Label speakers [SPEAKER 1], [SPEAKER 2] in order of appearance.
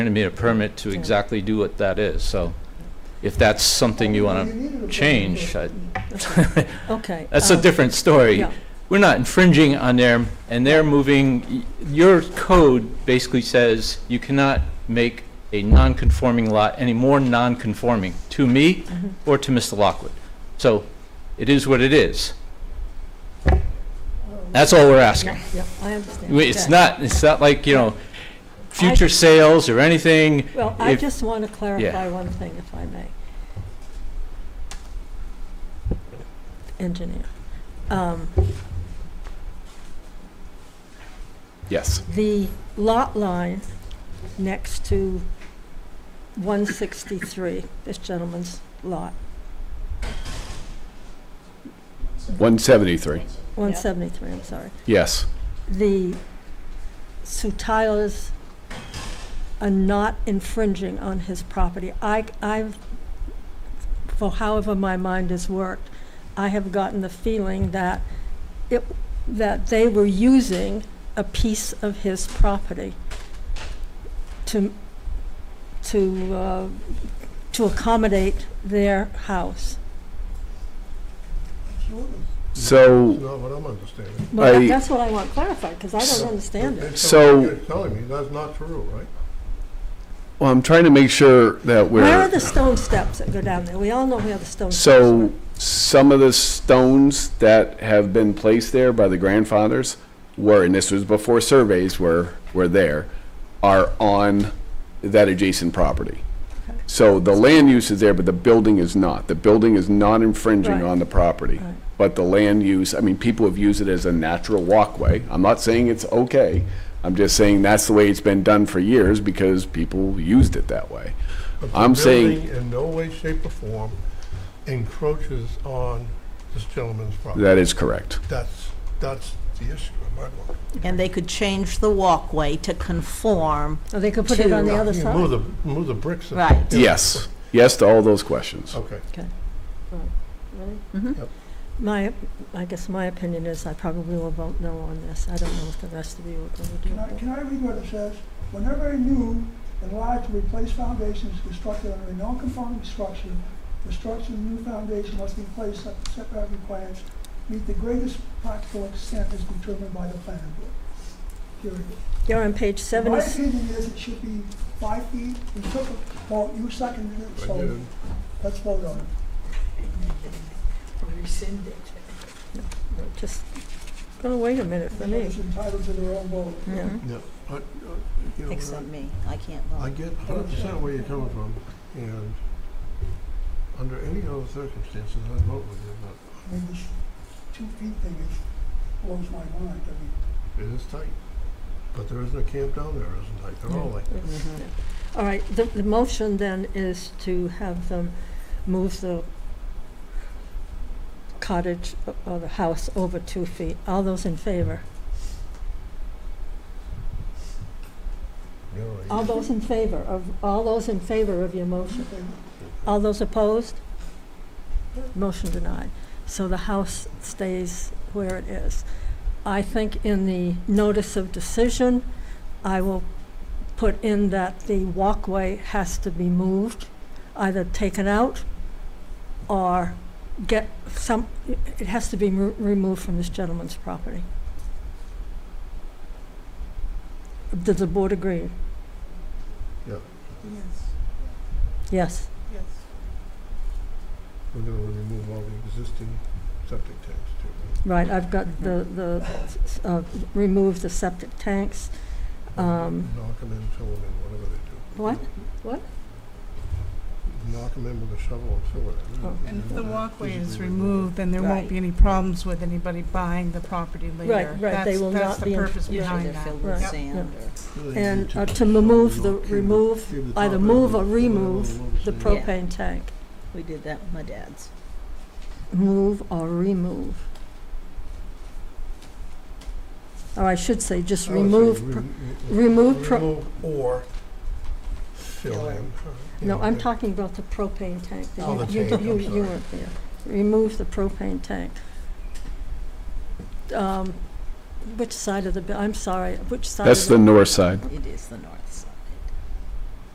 [SPEAKER 1] granted me a permit to exactly do what that is, so if that's something you want to change, I-
[SPEAKER 2] Okay.
[SPEAKER 1] that's a
[SPEAKER 2] um,
[SPEAKER 1] different story.
[SPEAKER 2] yeah.
[SPEAKER 1] We're not infringing on their, and they're moving, y- your code basically says you cannot make a non-conforming lot any more non-conforming to me
[SPEAKER 2] Mhm.
[SPEAKER 1] or to Mr. Lockwood. So it is what it is. That's all we're asking.
[SPEAKER 2] Yeah, yeah, I understand.
[SPEAKER 1] We- It's
[SPEAKER 2] Okay.
[SPEAKER 1] not, it's not like, you know, future sales or anything.
[SPEAKER 2] Well, I
[SPEAKER 1] if-
[SPEAKER 2] just want to clarify one thing, if I may. Engineer. Um,
[SPEAKER 3] Yes.
[SPEAKER 2] The lot line next to 163, this gentleman's lot,
[SPEAKER 3] 173.
[SPEAKER 2] 173, I'm sorry.
[SPEAKER 3] Yes.
[SPEAKER 2] the Sutiles are not infringing on his property. I, I've, for however my mind has worked, I have gotten the feeling that it, that they were using a piece of his property to, to, uh, to accommodate their house.
[SPEAKER 3] So
[SPEAKER 4] That's not what I'm understanding.
[SPEAKER 2] Well,
[SPEAKER 3] I-
[SPEAKER 2] that's what I want clarified, because I
[SPEAKER 3] So-
[SPEAKER 2] don't understand it.
[SPEAKER 4] That's
[SPEAKER 3] So-
[SPEAKER 4] what You're telling me that's not true, right?
[SPEAKER 3] Well, I'm trying to make sure that
[SPEAKER 2] Where are
[SPEAKER 3] we're,
[SPEAKER 2] the stone steps that go down there? We all know where the stone steps are.
[SPEAKER 3] so some of the stones that have been placed there by the grandfathers were, and this was before surveys were, were there, are on that adjacent property.
[SPEAKER 2] Okay.
[SPEAKER 3] So the land use is there, but the building is not. The building is not infringing
[SPEAKER 2] Right.
[SPEAKER 3] on the property.
[SPEAKER 2] Right.
[SPEAKER 3] But the land use, I mean, people have used it as a natural walkway. I'm not saying it's okay. I'm just saying that's the way it's been done for years because people used it that way.
[SPEAKER 4] But the
[SPEAKER 3] I'm saying-
[SPEAKER 4] building In no way, shape, or form encroaches on this gentleman's property.
[SPEAKER 3] That is correct.
[SPEAKER 4] That's, that's the issue in my mind.
[SPEAKER 5] And they could change the walkway to conform.
[SPEAKER 2] Or Oh, they could put it on the
[SPEAKER 5] Two.
[SPEAKER 2] other
[SPEAKER 4] You
[SPEAKER 2] side.
[SPEAKER 4] Move the, move the bricks. and-
[SPEAKER 5] Right.
[SPEAKER 3] Yes, yes to all those questions.
[SPEAKER 4] Okay.
[SPEAKER 2] Really?
[SPEAKER 5] Mhm.
[SPEAKER 4] Yep.
[SPEAKER 2] My, I guess my opinion is I probably will vote no on this. I don't know if the rest of you are going to do
[SPEAKER 6] Can I,
[SPEAKER 2] that.
[SPEAKER 6] can I read what it says? Whenever a new, enlarged, or replaced foundation is constructed under a non-conforming structure, the structure of the new foundation must be placed at setback requirements, meet the greatest practical extent as determined by the planning board. Period.
[SPEAKER 2] You're on page
[SPEAKER 6] My
[SPEAKER 2] 70,
[SPEAKER 6] opinion is it should be five feet, we took, it- well, you seconded it,
[SPEAKER 4] I
[SPEAKER 6] so
[SPEAKER 4] did.
[SPEAKER 6] let's vote on it.
[SPEAKER 2] just, oh, wait a minute for me.
[SPEAKER 6] Everyone's entitled to their own vote.
[SPEAKER 5] Mhm.
[SPEAKER 4] Yeah, I- I- uh, you know,
[SPEAKER 5] Except me, I can't
[SPEAKER 4] I
[SPEAKER 5] vote.
[SPEAKER 4] get hundred percent where you're coming from, and under any other circumstances, I'd vote with you, but
[SPEAKER 6] I mean, this two feet thing is, blows my mind, I mean.
[SPEAKER 4] it is tight. But there isn't a camp down there, isn't tight, they're all like that.
[SPEAKER 2] Mm-hmm. All right, the, the motion then is to have them move the cottage o- or the house over two feet. All those in favor?
[SPEAKER 4] you know, like-
[SPEAKER 2] All those in favor of, all those in favor of your motion? All those opposed? Motion denied. So the house stays where it is. I think in the notice of decision, I will put in that the walkway has to be moved, either taken out or get some, it has to be remo- removed from this gentleman's property. Does the board agree?
[SPEAKER 4] Yeah.
[SPEAKER 2] Yes.
[SPEAKER 4] We're gonna remove all the existing septic tanks too.
[SPEAKER 2] Right, I've got the, the, uh, remove the septic tanks. Um,
[SPEAKER 4] Knock them in, fill them in, whatever they do.
[SPEAKER 2] What?
[SPEAKER 4] Knock them in with a shovel and fill it in.
[SPEAKER 2] Oh.
[SPEAKER 7] And if the walkway is
[SPEAKER 4] Physically
[SPEAKER 7] removed, then there
[SPEAKER 5] Right.
[SPEAKER 7] won't be any problems with anybody buying the property later.
[SPEAKER 2] right, they
[SPEAKER 7] That's-
[SPEAKER 2] will not be in-
[SPEAKER 7] That's the purpose
[SPEAKER 5] Usually they're
[SPEAKER 7] behind that.
[SPEAKER 5] filled with
[SPEAKER 2] Yep.
[SPEAKER 5] sand or.
[SPEAKER 4] Really need
[SPEAKER 2] And uh, to
[SPEAKER 4] shovel
[SPEAKER 2] remove the,
[SPEAKER 4] and cube-
[SPEAKER 2] remove,
[SPEAKER 4] cube the
[SPEAKER 2] either
[SPEAKER 4] top
[SPEAKER 2] move or
[SPEAKER 4] end, put it on
[SPEAKER 2] remove
[SPEAKER 4] little
[SPEAKER 2] the
[SPEAKER 4] stand.
[SPEAKER 5] pro-
[SPEAKER 2] propane tank.
[SPEAKER 5] We did that with my dad's.
[SPEAKER 2] Move or remove. Or Oh, I should say, just
[SPEAKER 4] Oh, I would say
[SPEAKER 2] remove, pro-
[SPEAKER 4] re- re-
[SPEAKER 2] remove, pro-
[SPEAKER 4] remove or fill in.
[SPEAKER 2] no,
[SPEAKER 4] Yeah,
[SPEAKER 2] I'm
[SPEAKER 4] yeah.
[SPEAKER 2] talking about the propane tank. that
[SPEAKER 4] Oh,
[SPEAKER 2] you-
[SPEAKER 4] the
[SPEAKER 2] you-
[SPEAKER 4] tank, I'm
[SPEAKER 2] you- You
[SPEAKER 4] sorry.
[SPEAKER 2] weren't there. Remove the propane tank. Um, Which side of the, bu- I'm sorry, which side of the?
[SPEAKER 3] That's the north side.
[SPEAKER 5] It is the north side.